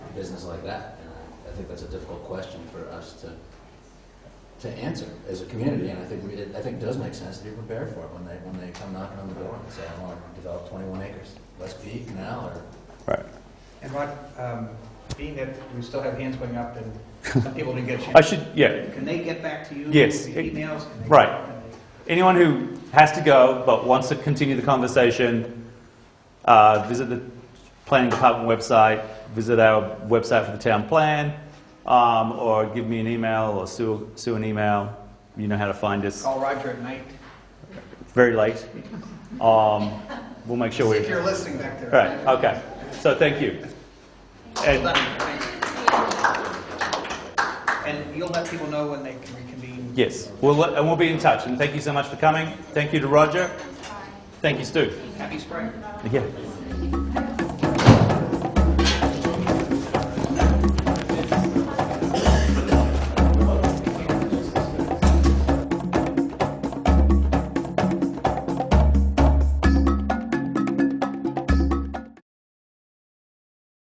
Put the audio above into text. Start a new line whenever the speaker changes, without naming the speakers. business like that? And I- I think that's a difficult question for us to, to answer as a community, and I think we, it- I think it does make sense to be prepared for it when they, when they come knocking on the door and say, I want to develop twenty-one acres, let's be now, or
And Rod, um, being that we still have hands going up and some people didn't get a
I
chance,
should, yeah.
can they get back to you?
Yes.
via Emails? Can they-
Right. Anyone who has to go but wants to continue the conversation, uh, visit the planning department website, visit our website for the town plan, um, or give me an email or Sue, Sue an email. You know how to find us.
Call Roger at night.
Very late. Um, we'll make sure
See
we.
if you're listening back there.
Right, okay. So thank you.
Well
And-
done. Thanks. And you'll let people know when they can reconvene?
Yes, we'll, let- and we'll be in touch. And thank you so much for coming. Thank you to Roger. Thank you, Stu.
Happy spring.
Yeah.